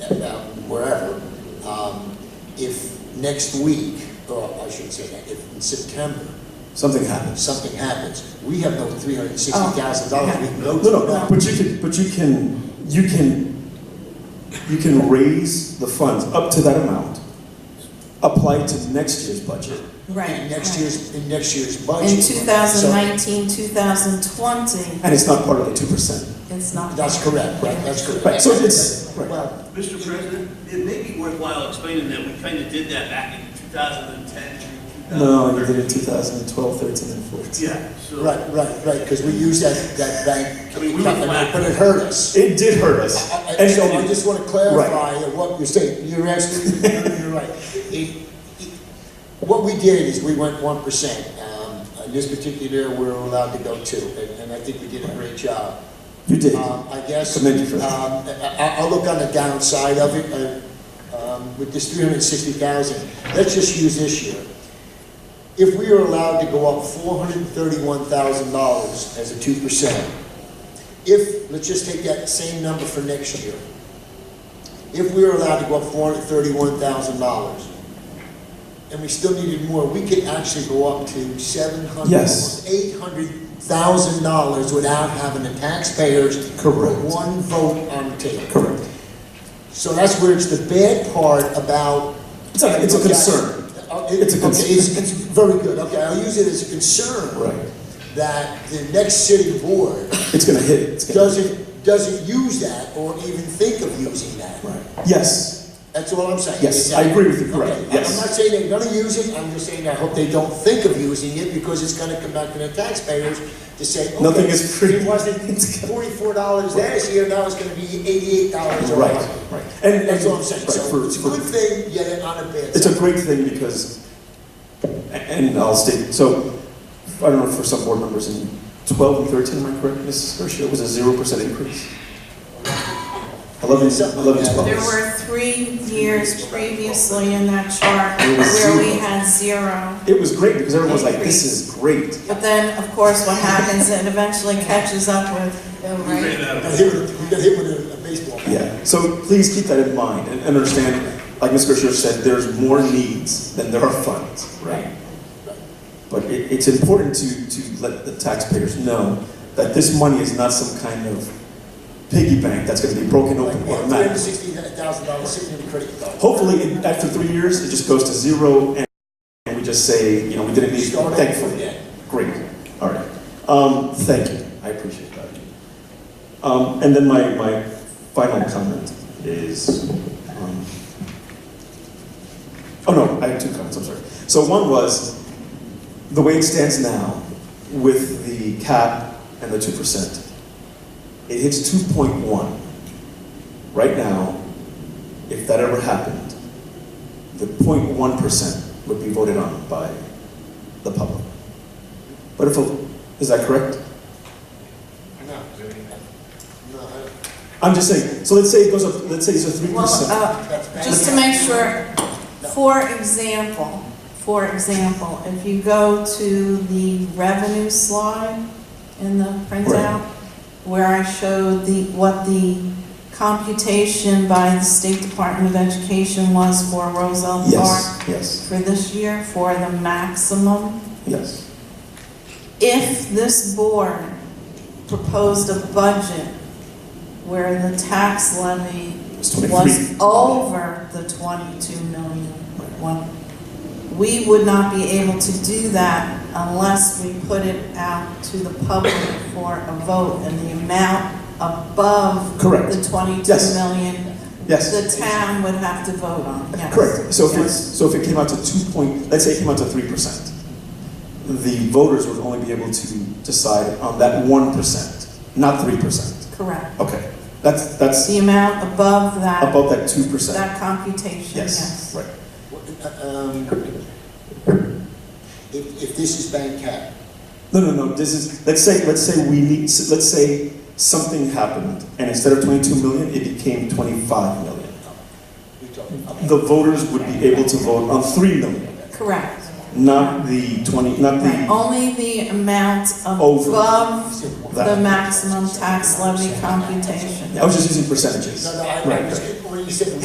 uh, wherever, um, if next week, or I shouldn't say that, if in September, Something happens. something happens, we have no three hundred and sixty thousand dollars Oh, we can go to. No, no, but you can, but you can, you can, you can raise the funds up to that amount, apply it to next year's budget. In Right. next year's, in next year's right. budget. In two thousand nineteen, two thousand twenty, And it's not part of the two percent. it's not. So, That's correct, right, that's correct. Right, so it's- right. Well, Mr. President, it may be worthwhile explaining that we kind of did that back in 2010 through 2013. No, you did it 2012, 13, and 14. Yeah, so. right, right, right, because we used that, that bank, I mean, we were but flat. it hurt us. It did hurt us. I- I- And So I just want to clarify what you're saying, you're absolutely, you're you're right. It- it- What we did is we went one percent, um, in this particular, we were allowed to go two, and, and I think we did a great job. You did. Um, I guess, um, Commend you for that. I, I- I'll look on the downside of it, uh, um, with this three hundred and sixty thousand, let's just use this year. If we are allowed to go up four hundred and thirty-one thousand dollars as a two percent, if, let's just take that same number for next year. If we were allowed to go up four hundred and thirty-one thousand dollars, and we still needed more, we could actually go up to seven hundred, Yes. eight hundred thousand dollars without having the taxpayers put Correct. one vote on the table. Correct. So that's where it's the bad part about. It's a, it's a concern. Uh, it- It's a concern. okay, It's, it's very good, okay, I'll use it as a concern. Right. That the next city board It's gonna hit. It's gonna- doesn't, doesn't use that or even think of using that. Right. Yes. That's all I'm saying. Yes, Is that- I agree with you, correct, Okay, I- yes. I'm not saying they're gonna use it, I'm just saying I hope they don't think of using it, because it's gonna come back to the taxpayers to say, okay. Nothing is free. It wasn't forty-four dollars last year, now it's gonna be eighty-eight dollars or Right, whatever. right. And, That's and- all I'm saying, right, so for- it's a for- good thing, yet on a bad It's a side. great thing because, and I'll state, so, I don't know for some board members, in 12 and 13, am I correct, Mrs. Hershey, it was a 0% increase? 11, 11, 12. There were three years previously in that chart It was where we zero. had zero. It was great because everyone was like, this is great. But then, of course, what happens, it eventually catches up with, the We ran rate. out Got of. hit with, a- got hit with a- a baseball bat. Yeah, so please keep that in mind and and understand, like Ms. Gershner said, there's more needs than there are funds, right? But it, it's important to, to let the taxpayers know that this money is not some kind of piggy bank that's gonna be broken Like, open we have three hundred and automatically. sixty thousand dollars sitting in the credit card. Hopefully, in- after three years, it just goes to zero and- and we just say, you know, we didn't need, Start over thankfully. again. Great, all right. Um, thank you, I appreciate that. Um, and then my, my final comment is, um, oh no, I have two comments, I'm sorry. So one was, the way it stands now with the cap and the two percent, it hits two point one. Right now, if that ever happened, the 0.1 percent would be voted on by the public. But if, a- is that correct? No. No, I- I'm just saying, so let's say it goes up, let's say it's a three Well, percent. uh, Just to make sure, for example, for example, if you go to the revenue slide in the printout, where I showed the, what the computation by the State Department of Education was for Roselle Park Yes, yes, for this year, for the maximum yes. if this board proposed a budget where the tax levy It's 23. was over the 22 million, one, we would not be able to do that unless we put it out to the public for a vote and the amount above Correct. the 22 Yes. million, Yes, the town would have to vote on, yes. correct. So if it's, Yes. so if it came out to two point, let's say it came out to three percent, the voters would only be able to decide on that one percent, not three percent. Correct. Okay, that's, that's The amount above that, above that two percent. that computation, yes. Yes, right. Um, If, if this is bank cap, No, no, no, this is, let's say, let's say we need, let's say something happened, and instead of 22 million, it became 25 million. we talking, okay. The voters would be able to vote on 3 million, Correct. not the 20, not Right, the, Only the amount Over. above the That. maximum tax levy computation. I was just using percentages. No, no, I, Right, I was, right. when you said